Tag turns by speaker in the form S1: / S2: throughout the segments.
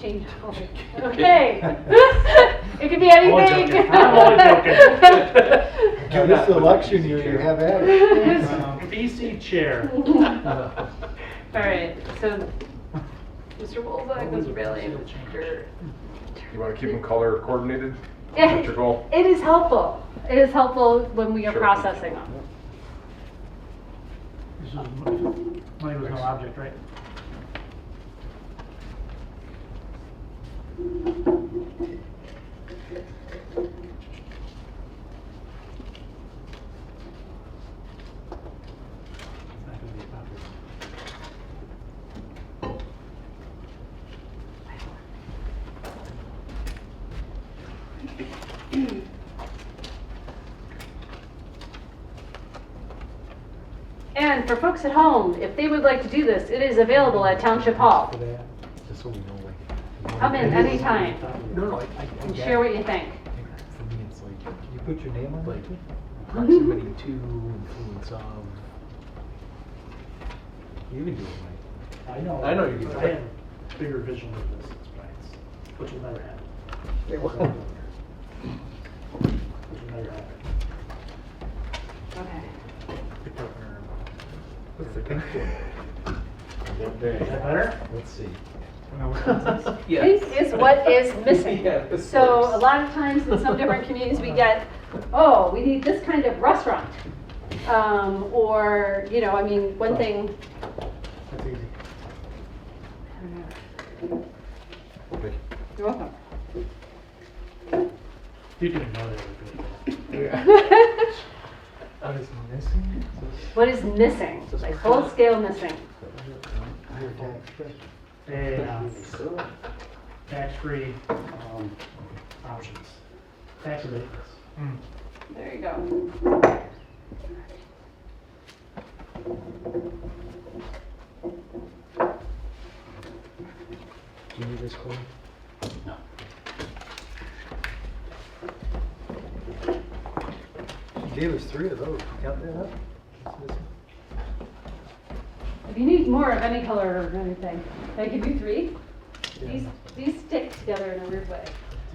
S1: change topic. Okay. It could be anything.
S2: joking. I'm only joking.
S3: Now, this election year, you have at it.
S2: BC chair.
S1: All right, so, Mr. Wolzak, Mr. Bailey, and Mr.
S4: You want to keep them color coordinated?
S1: Yeah.
S4: Is that your goal?
S1: It is helpful. It is helpful when we are
S4: Sure.
S1: processing them.
S2: This is- Money was no object, right? It's not gonna be popular.
S1: And for folks at home, if they would like to do this, it is available at Township Hall.
S3: For that, Just so we know, like.
S1: Come in anytime
S3: No, no, I, I. I
S1: and
S3: get
S1: share
S3: it.
S1: what you think.
S3: For me, it's like, uh, can you put your name on it?
S1: Mm-hmm.
S3: Proximity to, influence of. You can do it,
S2: I know.
S4: I know you can do
S2: but I
S4: it.
S2: had a bigger vision of this, it's Brian's, which will never happen.
S3: Mike.
S2: Which will never happen.
S1: Okay.
S2: Picked up her-
S3: What's the pink one?
S2: Is that better?
S3: Let's see.
S1: This is what is missing.
S4: Yeah, this
S1: So
S4: works.
S1: a lot of times in some different communities, we get, oh, we need this kind of restaurant. Um, or, you know, I mean, one thing,
S2: That's easy.
S1: you're welcome.
S2: You didn't know that were good.
S3: What is missing?
S1: What is missing? Like full scale missing.
S2: And um, tax-free um, options, tax abatements.
S1: There you go.
S3: Do you need this one? No. She gave us three of those. Count that up? It's missing.
S1: If you need more of any color or anything, I give you three. These, these stick together in a weird way.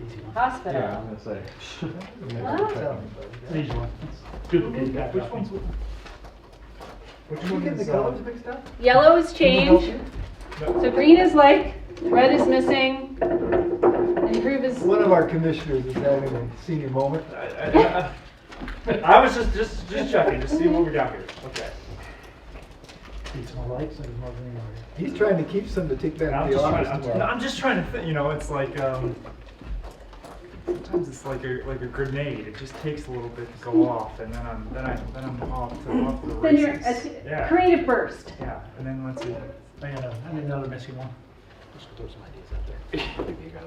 S2: It's easy one.
S1: Hospital.
S4: gonna say.
S1: Huh?
S2: It's an easy one. It's Duplicate that.
S4: Which one's? Which one is, uh,
S3: mixed up?
S1: Yellow is changed. So green is like, red is missing, and group is,
S3: One of our commissioners is having a senior moment.
S5: I I- I was just, just, just checking to see what we got here. Okay.
S2: Need some lights and more than anywhere.
S3: He's trying to keep some to take back
S5: I'm
S3: to the
S5: just trying, I'm,
S3: office
S5: no,
S3: tomorrow.
S5: I'm just trying to think, you know, it's like, um, sometimes it's like a, like a grenade. It just takes a little bit to go off and then I'm, then I, then I'm off to, off to the
S1: then you're,
S5: races.
S1: a
S5: Yeah,
S1: uh, creative burst.
S5: yeah, and then let's see.
S2: I got a- I need another missing one.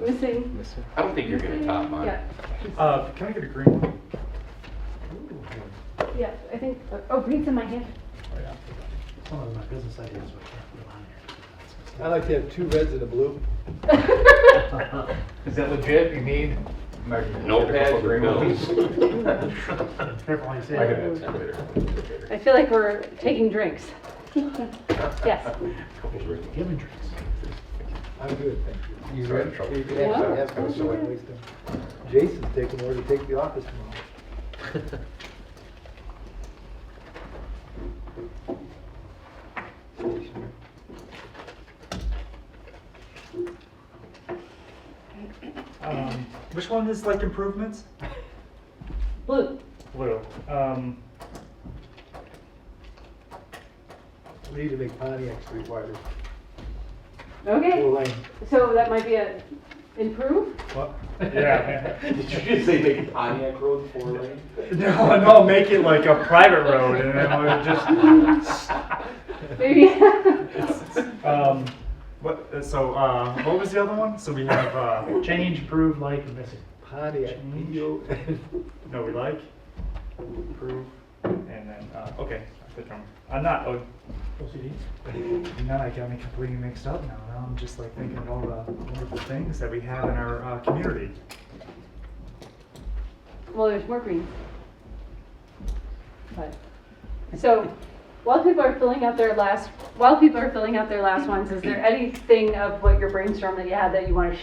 S1: Missing.
S6: I don't think you're gonna top mine.
S1: Yeah,
S5: Uh, can I get a green one?
S1: yeah, I think, oh, green's in my hand.
S2: Some of my business ideas, but I can't put them on here.
S3: I like to have two reds and a blue.
S6: Is that legit? You need? Notepad, your bills.
S2: Careful how you say
S4: I can add
S2: it.
S4: two later.
S1: I feel like we're taking drinks. Yes.
S2: Give me drinks.
S3: I'm good, thank you. You
S4: Sorry,
S3: ready?
S4: trouble.
S3: You can actually have
S4: Yeah.
S3: some, so I waste them. Jason's taking more to take the office tomorrow. Stationer.
S5: Um, which one is like improvements?
S1: Blue.
S5: Blue. Um,
S3: We need to make Pontiac Street wider,
S1: Okay,
S3: full lane.
S1: so that might be a improve?
S5: what? Yeah.
S6: Did you just say make Pontiac Road four lane?
S5: No, no, make it like a private road and then we'll just,
S1: Maybe.
S5: um, what, so, uh, what was the other one? So we have, uh,
S2: Change, prove, like, and missing.
S3: Pontiac,
S5: Change.
S3: P-O-N.
S5: no, we like, approve, and then, uh, okay, I put them, I'm not, oh,
S2: OCD?
S5: now I got me completely mixed up now. Now I'm just like thinking of all the wonderful things that we have in our, uh, community.
S1: Well, there's more green. But, so, while people are filling out their last, while people are filling out their last ones, is there anything of what your brainstorm that you had that you want to